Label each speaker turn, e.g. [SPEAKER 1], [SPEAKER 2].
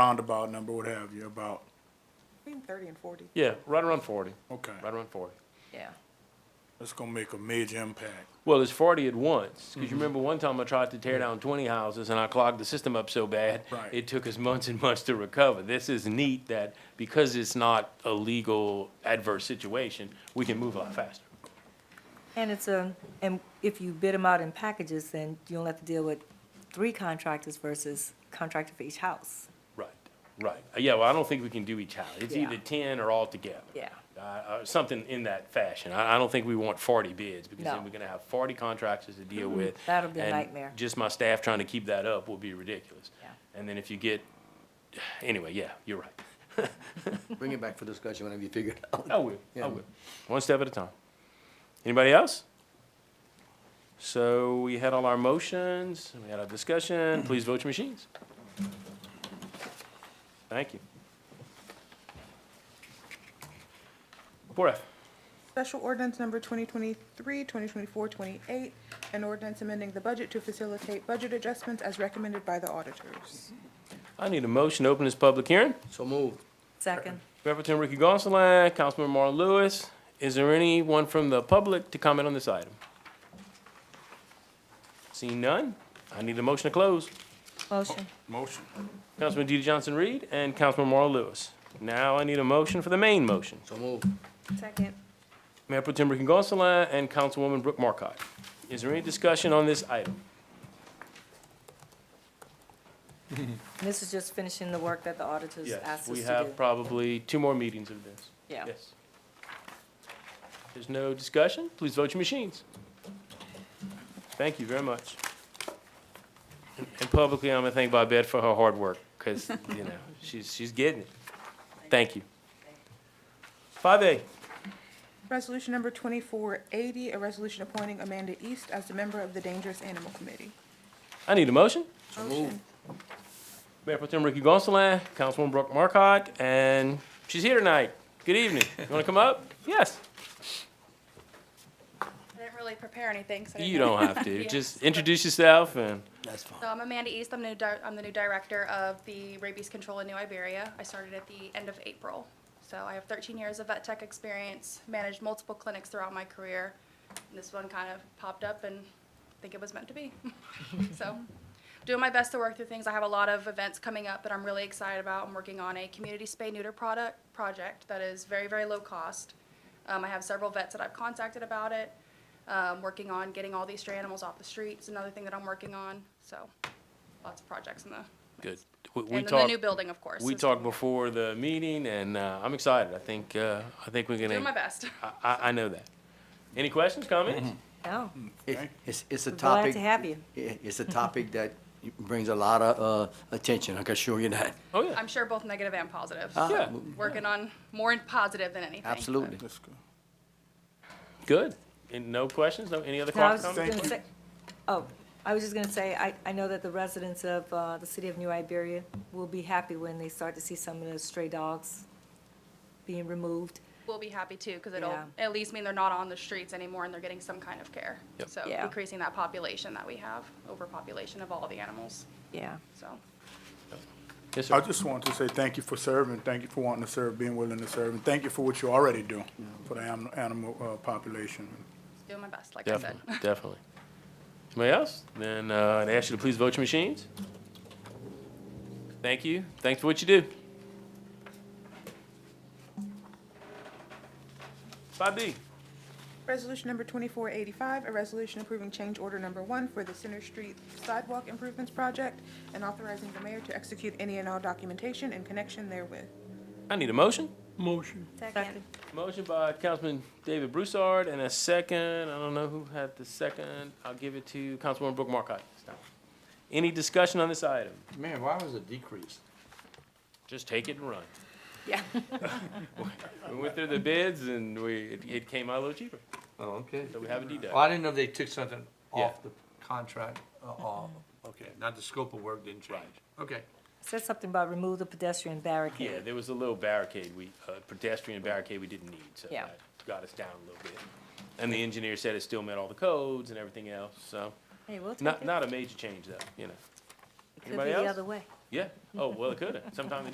[SPEAKER 1] roundabout number, what have you, about,
[SPEAKER 2] Between thirty and forty.
[SPEAKER 3] Yeah, right around forty,
[SPEAKER 1] okay.
[SPEAKER 3] right around forty.
[SPEAKER 2] Yeah.
[SPEAKER 1] That's gonna make a major impact.
[SPEAKER 3] Well, it's forty at once, because you remember one time I tried to tear down twenty houses and I clogged the system up so bad.
[SPEAKER 1] Right.
[SPEAKER 3] It took us months and months to recover. This is neat that, because it's not a legal adverse situation, we can move a lot faster.
[SPEAKER 4] And it's a, and if you bid them out in packages, then you don't have to deal with three contractors versus contractor for each house.
[SPEAKER 3] Right, right. Yeah, well, I don't think we can do each house. It's
[SPEAKER 4] Yeah.
[SPEAKER 3] either ten or all together.
[SPEAKER 4] Yeah.
[SPEAKER 3] Uh, uh, something in that fashion. I, I don't think we want forty bids, because
[SPEAKER 4] No.
[SPEAKER 3] then we're gonna have forty contractors to deal with.
[SPEAKER 4] That'll be a
[SPEAKER 3] and
[SPEAKER 4] nightmare.
[SPEAKER 3] Just my staff trying to keep that up will be ridiculous.
[SPEAKER 4] Yeah.
[SPEAKER 3] And then if you get, anyway, yeah, you're right.
[SPEAKER 5] Bring it back for discussion whenever you figure it out.
[SPEAKER 3] I will, I
[SPEAKER 5] Yeah.
[SPEAKER 3] will. One step at a time. Anybody else? So we had all our motions, we had our discussion. Please vote your machines. Thank you. Four F.
[SPEAKER 2] Special ordinance number 2023, 2024, 28, an ordinance amending the budget to facilitate budget adjustments as recommended by the auditors.
[SPEAKER 3] I need a motion to open this public hearing.
[SPEAKER 5] So move.
[SPEAKER 4] Second,
[SPEAKER 3] Representative Ricky Gonsalas, Councilman Marlon Lewis. Is there anyone from the public to comment on this item? Seeing none, I need a motion to close.
[SPEAKER 4] motion,
[SPEAKER 1] Motion.
[SPEAKER 3] Councilman DeeDee Johnson-Reed and Councilman Marl Lewis. Now I need a motion for the main motion.
[SPEAKER 5] So move.
[SPEAKER 4] second,
[SPEAKER 3] Mayor Pro Tem Ricky Gonsalas and Councilwoman Brooke Marcotte. Is there any discussion on this item?
[SPEAKER 4] this is just finishing the work that the auditors
[SPEAKER 3] Yes,
[SPEAKER 4] asked us
[SPEAKER 3] we
[SPEAKER 4] to
[SPEAKER 3] have
[SPEAKER 4] do.
[SPEAKER 3] probably two more meetings of this.
[SPEAKER 4] Yeah.
[SPEAKER 3] Yes. There's no discussion? Please vote your machines. Thank you very much. And- And publicly, I'm gonna thank Bobette for her hard work, because, you know, she's, she's getting it. Thank you. Five A.
[SPEAKER 2] Resolution number 2480, a resolution appointing Amanda East as a member of the Dangerous Animal Committee.
[SPEAKER 3] I need a motion.
[SPEAKER 5] So move.
[SPEAKER 3] Mayor Pro Tem Ricky Gonsalas, Councilwoman Brooke Markcott, and she's here tonight. Good evening. You want to come up? Yes.
[SPEAKER 6] I didn't really prepare anything, so. I
[SPEAKER 3] You
[SPEAKER 6] didn't-
[SPEAKER 3] don't have to.
[SPEAKER 6] Yeah.
[SPEAKER 3] Just introduce yourself and,
[SPEAKER 5] That's fine.
[SPEAKER 6] So I'm Amanda East. I'm the new, di- I'm the new director of the rabies control in New Iberia. I started at the end of April. So I have 13 years of vet tech experience, managed multiple clinics throughout my career. And This one kind of popped up and I think it was meant to be. So doing my best to work through things. I have a lot of events coming up that I'm really excited about. I'm working on a community spay neuter product project that is very, very low cost. Um, I have several vets that I've contacted about it. Um, working on getting all these stray animals off the streets, another thing that I'm working on. So lots of projects in the
[SPEAKER 3] good. We- We
[SPEAKER 6] and then the
[SPEAKER 3] talked,
[SPEAKER 6] new building, of course.
[SPEAKER 3] we
[SPEAKER 6] is-
[SPEAKER 3] talked before the meeting and uh, I'm excited. I think, uh, I think we're
[SPEAKER 6] Doing my
[SPEAKER 3] gonna,
[SPEAKER 6] best.
[SPEAKER 3] I, I I know that. Any questions,
[SPEAKER 4] Mm-hmm.
[SPEAKER 3] comments?
[SPEAKER 4] No,
[SPEAKER 3] Mm.
[SPEAKER 5] It's, it's- it's a
[SPEAKER 4] glad
[SPEAKER 5] topic.
[SPEAKER 4] to have you.
[SPEAKER 5] i- It's a topic that brings a lot of, uh, attention, I can assure you that.
[SPEAKER 3] Oh, yeah.
[SPEAKER 6] I'm sure both negative and positive.
[SPEAKER 5] Ah,
[SPEAKER 3] Yeah.
[SPEAKER 6] Working on more in positive than anything.
[SPEAKER 5] Absolutely.
[SPEAKER 1] That's good.
[SPEAKER 3] Good. And no questions? No, any other
[SPEAKER 4] No, I was
[SPEAKER 3] comments?
[SPEAKER 4] just gonna say, oh, I was just gonna say, I, I know that the residents of, uh, the city of New Iberia will be happy when they start to see some of those stray dogs being removed.
[SPEAKER 6] We'll be happy too, because it'll
[SPEAKER 4] Yeah.
[SPEAKER 6] at least mean they're not on the streets anymore and they're getting some kind of care.
[SPEAKER 3] Yep.
[SPEAKER 6] So
[SPEAKER 4] Yeah.
[SPEAKER 6] decreasing that population that we have, overpopulation of all the animals.
[SPEAKER 4] Yeah.
[SPEAKER 6] So
[SPEAKER 3] Yes,
[SPEAKER 1] I
[SPEAKER 3] sir.
[SPEAKER 1] just want to say thank you for serving, thank you for wanting to serve, being willing to serve, and thank you for what you already do for the anim- animal, uh, population.
[SPEAKER 6] doing my best, like I said.
[SPEAKER 3] Definitely, definitely. Anybody else? Then uh, I'd ask you to please vote your machines. Thank you. Thanks for what you do. Five B.
[SPEAKER 2] Resolution number 2485, a resolution approving change order number one for the Center Street Sidewalk Improvements Project and authorizing the mayor to execute any and all documentation in connection therewith.
[SPEAKER 3] I need a motion.
[SPEAKER 4] Second.
[SPEAKER 3] Motion by Councilman David Broussard and a second. I don't know who had the second. I'll give it to Councilwoman Brooke Markcott. this time. Any discussion on this item?
[SPEAKER 7] Man, why was it decreased?
[SPEAKER 3] Just take it and run.
[SPEAKER 4] Yeah.
[SPEAKER 3] We went through the bids and we, it- it came out a little cheaper,
[SPEAKER 7] Oh, okay.
[SPEAKER 3] so we have a deduct.
[SPEAKER 7] Well, I didn't know they took something
[SPEAKER 3] Yeah.
[SPEAKER 7] off the contract, uh, off, okay, not the scope of work didn't change. Okay.
[SPEAKER 4] Said something about remove the pedestrian barricade.
[SPEAKER 3] Yeah, there was a little barricade, we, a pedestrian barricade we didn't need, so
[SPEAKER 4] Yeah.
[SPEAKER 3] that got us down a little bit. And the engineer said it still met all the codes and everything else, so,
[SPEAKER 4] Hey, we'll take
[SPEAKER 3] not,
[SPEAKER 4] it.
[SPEAKER 3] not a major change though, you know.
[SPEAKER 4] Could be
[SPEAKER 3] Anybody
[SPEAKER 4] the
[SPEAKER 3] else?
[SPEAKER 4] other way.
[SPEAKER 3] Yeah. Oh, well, it could have. Sometimes it